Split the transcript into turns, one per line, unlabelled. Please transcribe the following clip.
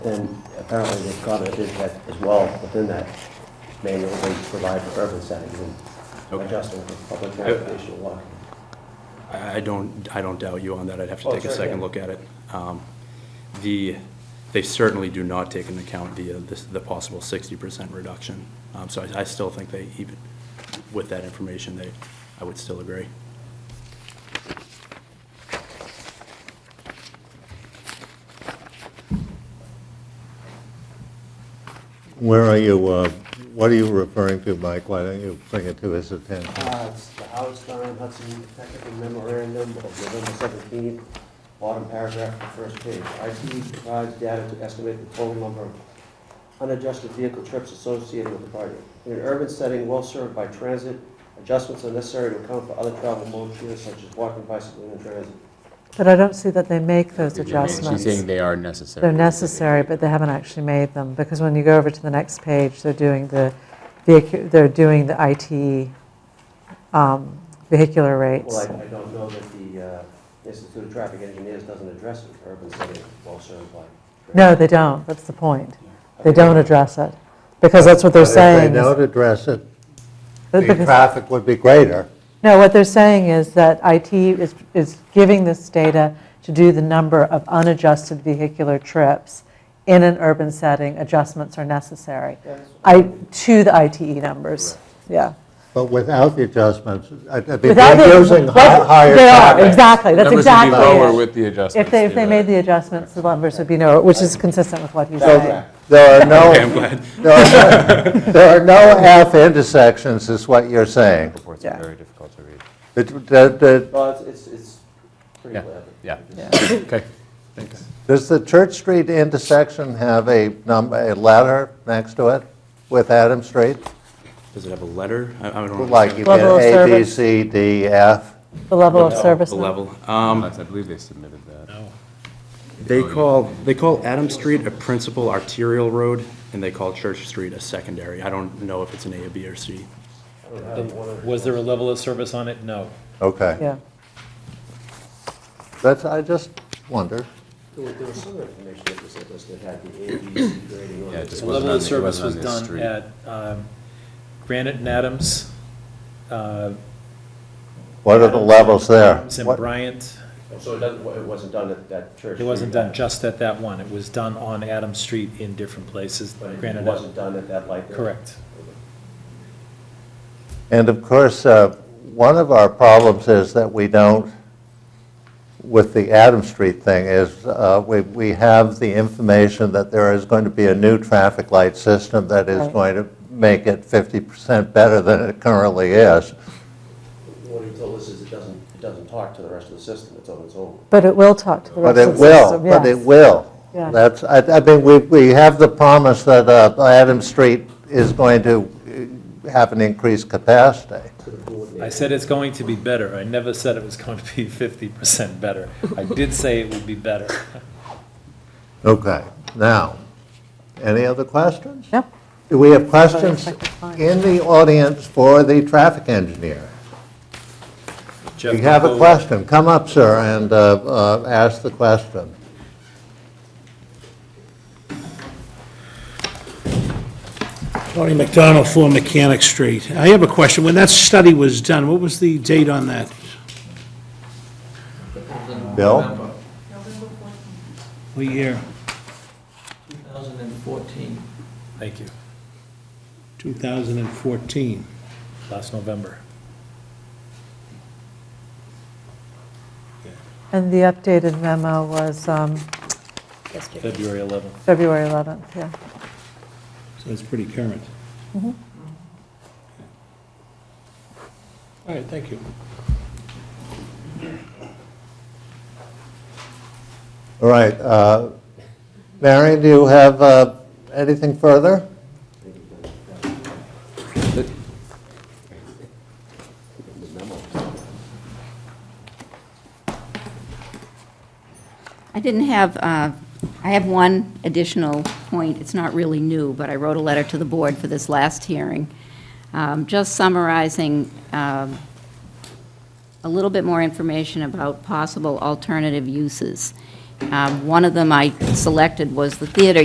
And apparently the comment is that as well, within that manual, they provide for urban settings and
Okay.
adjusting for public transportation and walking.
I I don't, I don't doubt you on that. I'd have to
Oh,
take a
sure,
second
yeah.
look at it. Um, The, they certainly do not take into account the, uh, this- the possible 60% reduction. Um, So I I still think they, even with that information, they, I would still agree.
Where are you, uh, what are you referring to, Mike? Why don't you bring it to his attention?
Uh, it's the Howard Stern Hudson Technical Memorandum of November seventeenth, bottom paragraph, the first page. IT provides data to estimate the total number of unadjusted vehicle trips associated with the project. In an urban setting well served by transit, adjustments are necessary to account for other travel modes such as walking, bicycling, and transit.
But I don't see that they make those
She's saying
adjustments.
they are necessary.
They're necessary, but they haven't actually made them, because when you go over to the next page, they're doing the, vehicu- they're doing the IT um, vehicular rates.
Well, I, I don't know that the uh, Institute of Traffic Engineers doesn't address an urban setting well served by.
No, they don't, that's the point. They
Okay.
don't address it, because that's what they're saying.
If they
is-
don't address it,
that-
the
because-
traffic would be greater.
No, what they're saying is that IT is, is giving this data to do the number of unadjusted vehicular trips in an urban setting, adjustments are necessary.
Yes.
I, to the ITE numbers, yeah.
But without the adjustments, I- I think
Without the-
they're using hi-
that's-
higher
They are,
traffic.
exactly, that's
Numbers would be
exactly
lower
it.
with the adjustments.
If they, if they made the adjustments, the numbers would be lower, which is consistent with what he's saying.
There are
Okay, I'm
no,
glad.
there are no- there are no F intersections, is what you're saying.
Reports
Yeah.
are very difficult to read.
The- the- the-
Well, it's, it's, it's pretty
Yeah,
clever.
yeah. Okay, thanks.
Does the Church Street intersection have a number, a letter next to it with Adam Street?
Does it have a letter? I I don't know.
Like you get
Level of
A, B,
service.
C, D, F?
The level of service.
The
now?
level. Um, Oh,
I believe they submitted that.
They call, they call Adam Street a principal arterial road, and they call Church Street a secondary. I don't know if it's an A, a B, or C.
Was there a level of service on it? No.
Okay.
Yeah,
That's, I just wonder.
There was, there was some information that was listed that had the A, B, C grading on
Yeah,
it.
just wasn't
The level
on
of
the- it
service was
wasn't on this
done
street.
at um, Granite and Adams, uh,
What are the levels there?
Adams and
What-
Bryant.
So it doesn't, it wasn't done at that church.
It wasn't
street,
done just at that one. It was done on Adams Street in different places.
But it- it
Granite,
wasn't
Adams-
done at that light. there.
correct.
And of course, uh, one of our problems is that we don't, with the Adam Street thing, is uh, we we have the information that there is going to be a new traffic light system that is
Right.
going to make it 50% better than it currently is.
What he told us is it doesn't, it doesn't talk to the rest of the system, it's on its own.
but it will talk to the
But
rest
it
of the
will,
system, yes.
but it will.
Yeah.
That's, I I mean, we we have the promise that uh, Adam Street is going to uh, have an increased capacity.
I said it's going to be better. I never said it was going to be 50% better. I did say it would be better.
Okay, now, any other questions?
No.
Do we have questions
Sorry, I can't find
in the audience for the traffic engineer? If
Jeff
you have a
Capone,
question, come up, sir, and uh, uh, ask the question.
Tony McDonald, 4 Mechanic Street. I have a question. When that study was done, what was the date on that?
Bill?
November 14,
What year?
2014.
Thank you.
2014.
Last November.
And the updated memo was um,
February 11th.
February 11th, yeah.
So it's pretty current. All right, thank you.
All right, uh, Marion, do you have uh, anything further?
I didn't have, uh, I have one additional point. It's not really new, but I wrote a letter to the board for this last hearing, um, just summarizing um, a little bit more information about possible alternative uses. Um, One of them I selected was the theater